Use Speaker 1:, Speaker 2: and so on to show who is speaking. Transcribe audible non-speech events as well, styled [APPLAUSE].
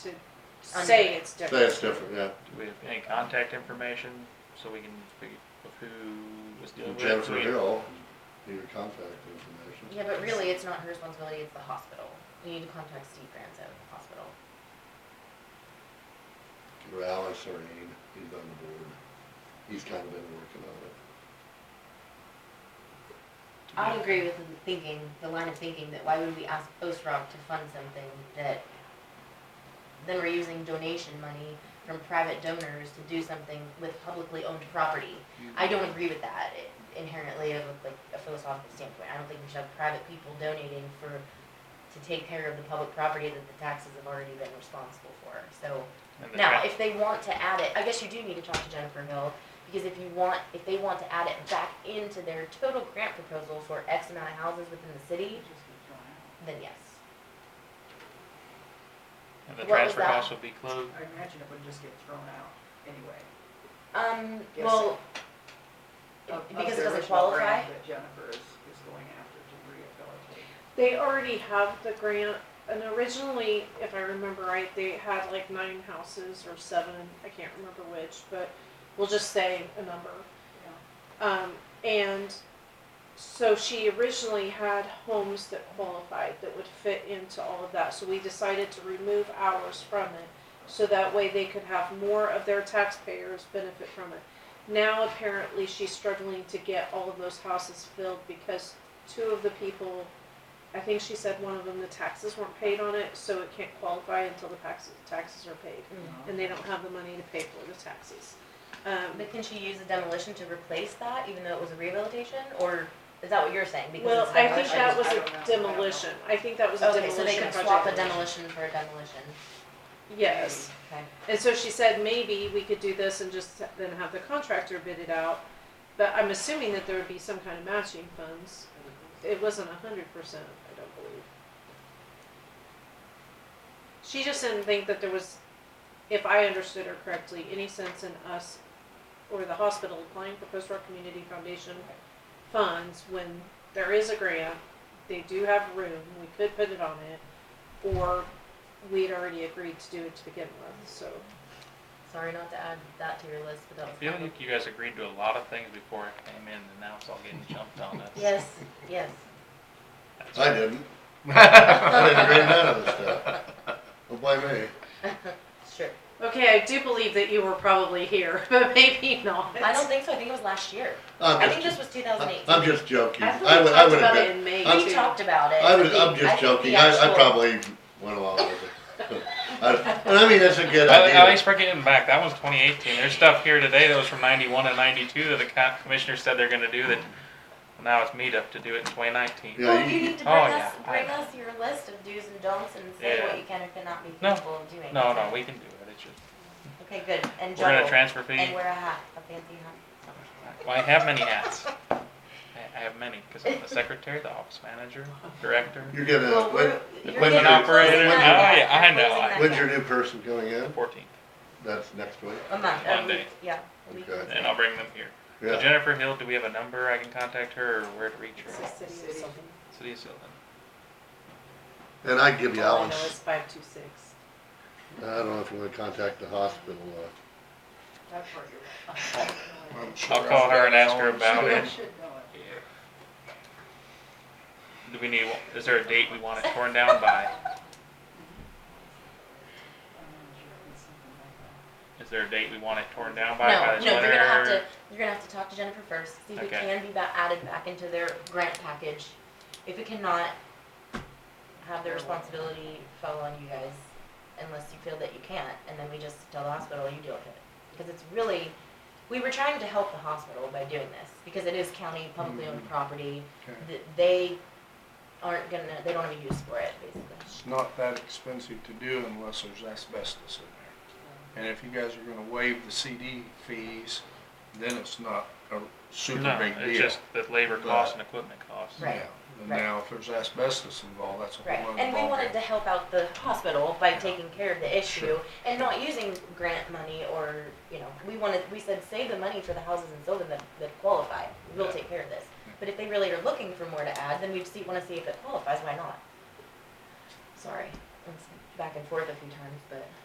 Speaker 1: to say it's
Speaker 2: Say
Speaker 1: different.
Speaker 2: it's different, yeah.
Speaker 3: Do we have any contact information so we can figure out who was dealing with? it?
Speaker 2: Jennifer
Speaker 3: Do we-
Speaker 2: Hill, needed contact information.
Speaker 4: Yeah, but really, it's not her responsibility, it's the hospital. You need to contact Steve Granzo at the hospital.
Speaker 2: Or Alex Serene, he's on the board. He's kind of been working on it.
Speaker 4: I agree with the thinking, the line of thinking that why would we ask Ostrog to fund something that then we're using donation money from private donors to do something with publicly owned property. I don't agree with that inherently of like a philosophical standpoint. I don't think we should have private people donating for, to take care of the public property that the taxes have already been responsible for, so.
Speaker 3: And the
Speaker 4: Now,
Speaker 3: tra-
Speaker 4: if they want to add it, I guess you do need to talk to Jennifer Hill, because if you want, if they want to add it back into their total grant proposal for X amount of houses within the city, then yes.
Speaker 3: And the
Speaker 4: what was
Speaker 3: transfer
Speaker 4: that?
Speaker 3: house would be closed?
Speaker 5: I imagine it would just get thrown out anyway.
Speaker 4: Um,
Speaker 5: Yes.
Speaker 4: well,
Speaker 5: of- of
Speaker 4: because
Speaker 5: the
Speaker 4: it doesn't
Speaker 5: original
Speaker 4: qualify,
Speaker 5: grant That Jennifer is, is going after to rehabilitate.
Speaker 1: They already have the grant, and originally, if I remember right, they had like nine houses or seven, I can't remember which, but we'll just say a number. Um, and so she originally had homes that qualified that would fit into all of that, so we decided to remove ours from it. So that way they could have more of their taxpayers benefit from it. Now apparently she's struggling to get all of those houses filled because two of the people, I think she said one of them, the taxes weren't paid on it, so it can't qualify until the taxes, taxes are paid.
Speaker 4: Mm.
Speaker 5: Yeah.
Speaker 1: And they don't have the money to pay for the taxes. Um,
Speaker 4: but can she use the demolition to replace that, even though it was a rehabilitation, or is that what you're saying? Because
Speaker 1: Well,
Speaker 4: it's
Speaker 1: I
Speaker 4: not-
Speaker 1: think
Speaker 5: I
Speaker 1: that
Speaker 5: just-
Speaker 1: was
Speaker 5: I
Speaker 1: a
Speaker 5: don't know.
Speaker 1: demolition, I think that was a
Speaker 4: Okay, so
Speaker 1: demolition
Speaker 4: they
Speaker 1: project.
Speaker 4: could swap a demolition for a demolition,
Speaker 1: Yes,
Speaker 4: okay.
Speaker 1: and so she said maybe we could do this and just then have the contractor bid it out, but I'm assuming that there would be some kind of matching funds. It wasn't a hundred percent, I don't believe. She just didn't think that there was, if I understood her correctly, any sense in us or the hospital applying for Post Rock Community Foundation funds when there is a grant, they do have room, we could put it on it, or we'd already agreed to do it to begin with, so.
Speaker 4: Sorry not to add that to your list, but that
Speaker 3: I
Speaker 4: was.
Speaker 3: feel like you guys agreed to a lot of things before I came in and now it's all getting jumped on us. [LAUGHS]
Speaker 4: Yes, yes.
Speaker 3: That's-
Speaker 2: I didn't. I didn't agree on none of this stuff. Don't blame me.
Speaker 4: Sure.
Speaker 1: Okay, I do believe that you were probably here, [LAUGHS] but maybe not.
Speaker 4: I don't think so, I think it was last year. I
Speaker 2: I'm
Speaker 4: think
Speaker 2: just,
Speaker 4: this was two thousand eight.
Speaker 2: I'm just joking.
Speaker 1: I thought
Speaker 2: I would,
Speaker 1: we
Speaker 2: I
Speaker 1: talked
Speaker 2: would have
Speaker 1: about it
Speaker 2: been,
Speaker 1: in May
Speaker 2: I'm-
Speaker 4: We
Speaker 1: too.
Speaker 4: talked about it.
Speaker 2: I would,
Speaker 4: think-
Speaker 2: I'm
Speaker 4: I
Speaker 2: just
Speaker 4: think the
Speaker 2: joking. I, I
Speaker 4: actual-
Speaker 2: probably went along with it. [LAUGHS] I- And I mean, that's a good
Speaker 3: At at
Speaker 2: idea.
Speaker 3: least we're getting back, that was twenty eighteen, there's stuff here today that was from ninety-one and ninety-two that the co- commissioner said they're gonna do that. Now it's meet up to do it in twenty nineteen.
Speaker 2: Yeah.
Speaker 4: Well, you need to bring
Speaker 3: Oh,
Speaker 4: us,
Speaker 3: yeah, I
Speaker 4: bring
Speaker 3: know.
Speaker 4: us your list of do's and don'ts and say
Speaker 3: Yeah.
Speaker 4: what you can or cannot be
Speaker 3: No.
Speaker 4: capable of doing.
Speaker 3: No, no, we can do it, it's just,
Speaker 4: Okay, good, and
Speaker 3: we're gonna
Speaker 4: juggle,
Speaker 3: transfer fee.
Speaker 4: and wear a hat, a fancy hat.
Speaker 3: Well, I have many hats. I, I have many because I'm the secretary, the office manager, director.
Speaker 2: You're gonna,
Speaker 4: Well,
Speaker 2: Uh, when,
Speaker 4: we're, you're
Speaker 2: when
Speaker 4: getting,
Speaker 2: an
Speaker 4: you're closing
Speaker 3: operator-
Speaker 4: that
Speaker 3: Oh,
Speaker 4: gap.
Speaker 3: yeah, I
Speaker 4: You're
Speaker 3: know.
Speaker 4: closing that
Speaker 2: when's your
Speaker 4: gap.
Speaker 2: new person going in?
Speaker 3: 14th,
Speaker 2: That's next week.
Speaker 4: A month, a
Speaker 3: Monday.
Speaker 4: week, yeah. a week.
Speaker 2: Okay.
Speaker 3: and I'll bring them here. So
Speaker 2: Yeah.
Speaker 3: Jennifer Hill, do we have a number I can contact her or where to reach
Speaker 1: It's
Speaker 3: her?
Speaker 1: a city or something.
Speaker 3: City of Sylvan.
Speaker 2: And I'd give you
Speaker 1: All I know
Speaker 2: Alan's
Speaker 1: is five two six.
Speaker 2: I don't know if you wanna contact the hospital,
Speaker 5: That's where you're at.
Speaker 2: uh.
Speaker 3: I'll call her and ask her about
Speaker 5: You
Speaker 3: it.
Speaker 5: should know it.
Speaker 3: Do we need? Is there a date we want it torn down by?
Speaker 5: I'm not sure if it's something like that.
Speaker 3: Is there a date we want it torn down by? by
Speaker 4: No,
Speaker 3: this
Speaker 4: no, you're
Speaker 3: winter?
Speaker 4: gonna have to, you're gonna have to talk to Jennifer first, see if it
Speaker 3: Okay.
Speaker 4: can be ba- added back into their grant package. If it cannot, have the responsibility fall on you guys unless you feel that you can't, and then we just tell the hospital, you deal with it. Because it's really, we were trying to help the hospital by doing this, because it is county publicly owned property.
Speaker 6: Okay.
Speaker 4: Th- They aren't gonna, they don't have a use for it, basically.
Speaker 6: It's not that expensive to do unless there's asbestos in there. And if you guys are gonna waive the CD fees, then it's not a super
Speaker 3: No,
Speaker 6: big
Speaker 3: it's
Speaker 6: deal.
Speaker 3: just the labor costs and equipment costs.
Speaker 4: Right.
Speaker 6: Yeah. And
Speaker 4: right.
Speaker 6: now, if there's asbestos involved, that's a
Speaker 4: Right,
Speaker 6: whole other
Speaker 4: and we wanted to
Speaker 6: ballgame.
Speaker 4: help out the hospital by
Speaker 6: Yeah.
Speaker 4: taking care of the issue and not using grant money or, you know, we wanted, we said, save the money for the houses in Sylvan that, that qualify. We'll
Speaker 6: Yeah.
Speaker 4: take care of this. But if they really are looking for more to add, then we'd see, wanna see if it qualifies, why not? Sorry, that's back and forth a few times, but.